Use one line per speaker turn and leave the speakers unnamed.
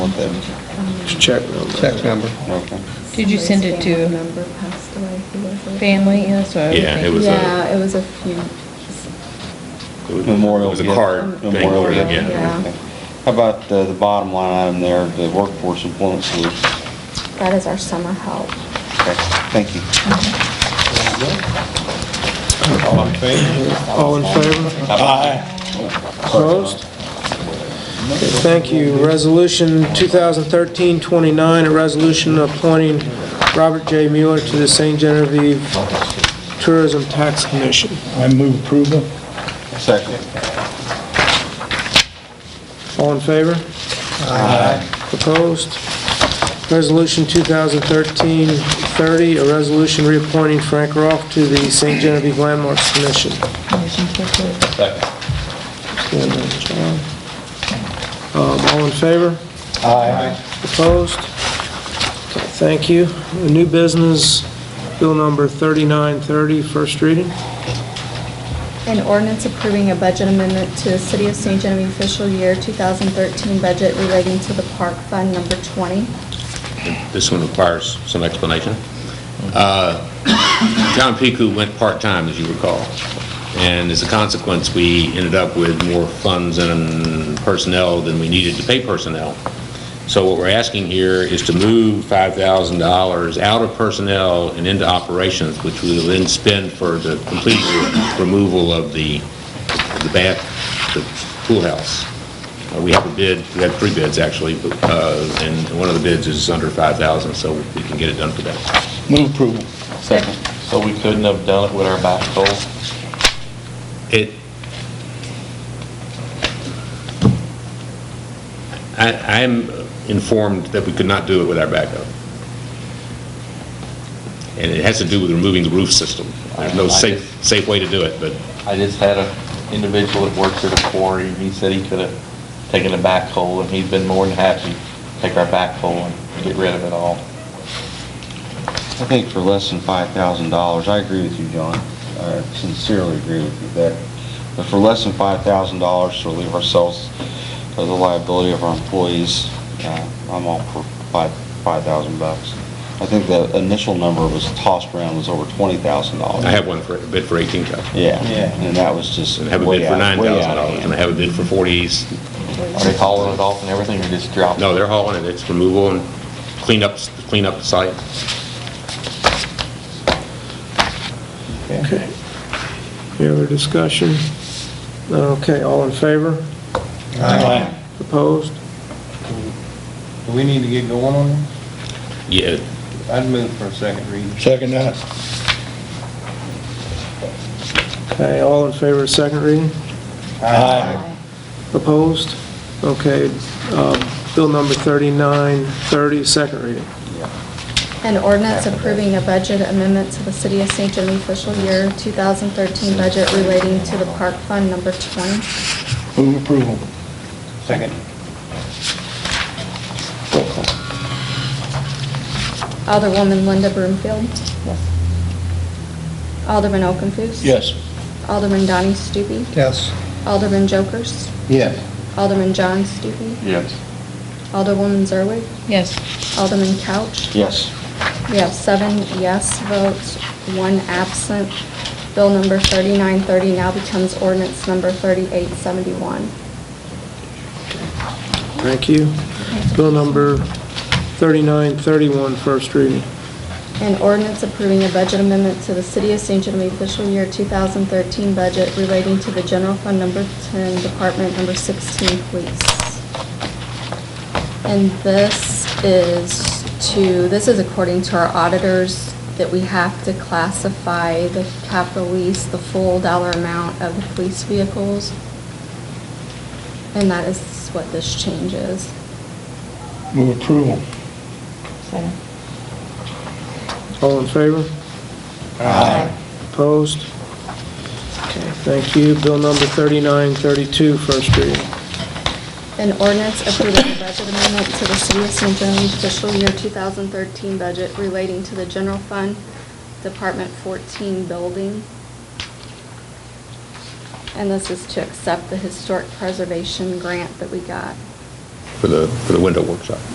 something.
Check number.
Check number.
Okay.
Did you send it
Somebody's family
to
member passed away who was a-
family? Yeah, that's what I was
Yeah, it
thinking.
was a-
Yeah, it was a few,
It was-
Memorial.
It was a
gift.
card thing.
Memorial.
Memorial,
gift.
yeah.
Okay. How about uh, the bottom line item there, the workforce employment solution?
that is our summer help.
Okay, thank you.
All in favor?
All in favor?
Aye.
Opposed? Okay, Thank you. Resolution 2013-29, a resolution appointing Robert J. Mueller to the St. Genevieve Tourism Tax Commission.
I move approval.
Second.
All in favor? Opposed? Resolution 2013-30, a resolution reappointing Frank Roth to the St. Genevieve Landmarks Commission.
Motion to approve.
Second.
Stand on, John. Um, All in favor?
Aye.
Opposed? Okay, Thank you. The New business, bill number 3930, first reading.
An ordinance approving a budget amendment to the City of St. Genevieve official year 2013 budget relating to the park fund number 20.
This one requires some explanation. Uh, John Piku went part-time, as you recall, and as a consequence, we ended up with more funds and personnel than we needed to pay personnel. So what we're asking here is to move $5,000 out of personnel and into operations, which we will then spend for the complete removal of the the bath, the pool house. Uh, We have a bid, we have three bids, actually, but, uh, and one of the bids is under 5,000, so we can get it done for that.
Move approval. Second.
So we couldn't have done it with our back goal?
It, I, I'm informed that we could not do it with our backup. And it has to do with removing the roof system. There's no safe, safe way to do it, but
I just had an individual that works at a quarry, he said he could have taken a backhoe, and he's been more than happy to take our backhoe and get rid of it all.
I think for less than five thousand dollars, I agree with you, John. I sincerely agree with you that, but for less than five thousand dollars to relieve ourselves of the liability of our employees, uh, I'm all for five, five thousand bucks. I think the initial number was tossed around was over twenty thousand dollars.
I have one for, a bid for 18,000.
Yeah, and that was just
And I have a
way
bid for
out, way out of
$9,000, and I
hand.
have a bid for 40s,
Are they hauling it off and everything, or just dropping?
No, they're hauling it, it's removal and clean up, clean up the site.
Okay. Any other discussion? None, Okay, all in favor? Opposed?
Do we need to get going on this?
Yeah,
I'd move for a second reading.
Second that.
Okay, all in favor of second reading?
Aye.
Opposed? Okay, um, bill number 3930, second reading.
An ordinance approving a budget amendment to the City of St. Genevieve official year 2013 budget relating to the park fund number 20.
Move approval.
Second.
Alderwoman Linda Broomfield. Alderman Okenfuss.
Yes.
Alderman Donnie Stupi.
Yes.
Alderman Jokers.
Yes.
Alderman John Stupi.
Yes.
Alderwoman Zerwig.
Yes.
Alderman Couch.
Yes.
We have seven yes votes, one absent. Bill number 3930 now becomes ordinance number 3871.
Thank you. Bill number 3931, first reading.
An ordinance approving a budget amendment to the City of St. Genevieve official year 2013 budget relating to the General Fund Number 10, Department Number 16, Police. And this is to, this is according to our auditors, that we have to classify the capital lease, the full dollar amount of the police vehicles. And that is what this change is.
Move approval.
Second.
All in favor?
Aye.
Opposed? Okay, thank you. Bill number 3932, first reading.
An ordinance approving a budget amendment to the City of St. John's official year 2013 budget relating to the general fund, Department 14 building. And this is to accept the historic preservation grant that we got.
for the, for the window workshop.